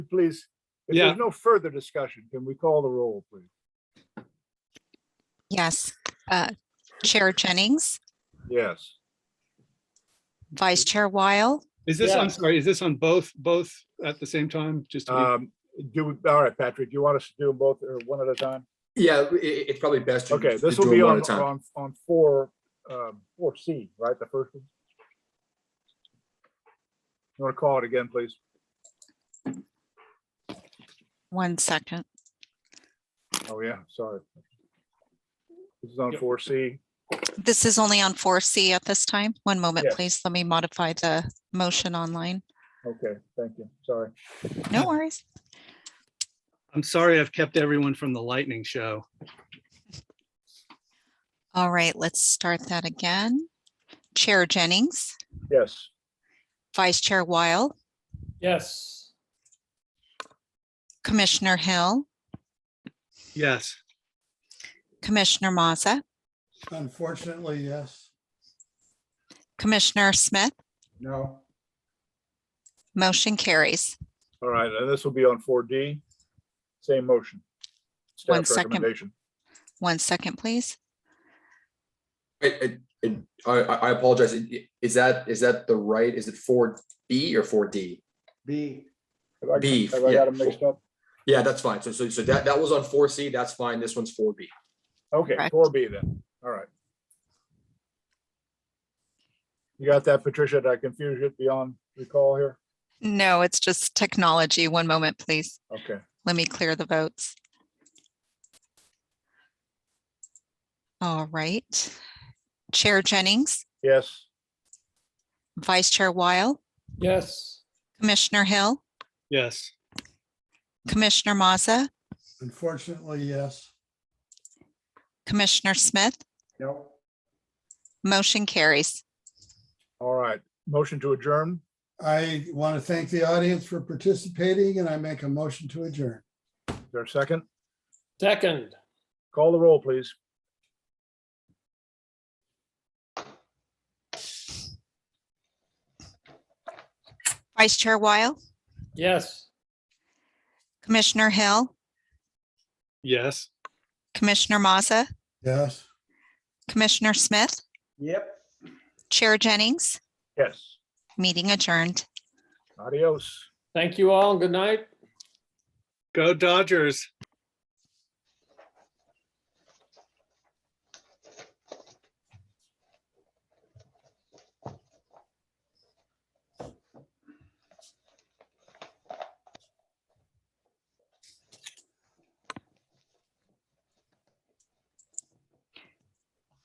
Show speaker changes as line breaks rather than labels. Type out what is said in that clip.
please? If
Yeah.
there's no further discussion, can we call the roll, please?
Yes. Uh, Chair Jennings,
Yes.
Vice Chair Weil,
Is this, I'm
Yes.
sorry, is this on both, both at the same time? Just, to be-
Um, do, we- all right, Patrick, you want us to do them both or one at a time?
Yeah, i- i- it's probably best. to-
Okay,
to
this
do
will be
them one
on,
at a time.
on, on four, um, four C, right, the first one? You want to call it again, please?
one second.
Oh, yeah, sorry. This is on
Yep.
four C.
This is only on 4C at this time. One moment,
Yes.
please. Let me modify the motion online.
Okay, thank you, sorry.
No worries.
I'm sorry I've kept everyone from the lightning show.
All right, let's start that again. Chair Jennings,
Yes,
Vice Chair Weil,
Yes,
Commissioner Hill,
Yes,
Commissioner Maza,
Unfortunately, yes.
Commissioner Smith,
No.
motion carries.
all right, and this will be on four D, same motion.
One
Staff
second.
recommendation.
One second, please.
Wait, it- it- I, I I apologize. It- it- Is that, is that the right, is it four B or four D?
B.
Have I-
B,
Have I
yeah.
got them mixed up?
Yeah, that's fine. So, so, so that, that was on four C, that's fine. This one's four B.
Okay,
Correct.
four B then, all right. You got that, Patricia? Did I confuse you beyond recall here?
No, it's just technology. One moment, please.
Okay,
Let me clear the votes. All right. Chair Jennings,
yes,
Vice Chair Weil,
yes,
Commissioner Hill,
yes,
Commissioner Maza,
Unfortunately, yes.
Commissioner Smith,
No.
motion carries.
all right. Motion to adjourn?
I want to thank the audience for participating and I make a motion to adjourn.
Is there a second?
second,
Call the roll, please.
Vice Chair Weil,
yes.
Commissioner Hill,
yes.
Commissioner Maza,
Yes.
Commissioner Smith. Yep. Chair Jennings,
Yes,
meeting adjourned.
adios.
Thank you all and good night.
Go Dodgers.